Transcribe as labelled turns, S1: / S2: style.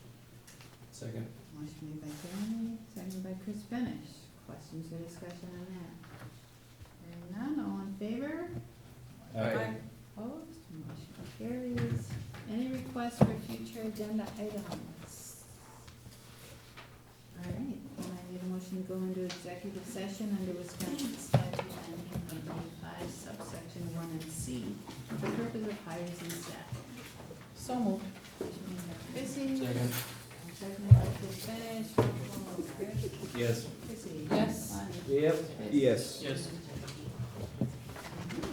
S1: Second.
S2: Motion made by Jeremy, seconded by Chris Benish. Questions or discussion on that? Hearing none, all in favor?
S1: Aye.
S2: Opposed? Motion carries. Any requests for future agenda items? All right, then I need a motion to go into executive session under Wisconsin statute nineteen point eighty-five subsection one and C for the purpose of hires and staff.
S3: So moved.
S2: Motion made by Chrissy,
S1: Second.
S2: seconded by Chris Benish. Roll call, Chris?
S1: Yes.
S2: Chrissy?
S3: Yes.
S2: Lonnie?
S1: Yep.
S2: Chris?
S4: Yes.
S1: Yes.
S2: And John.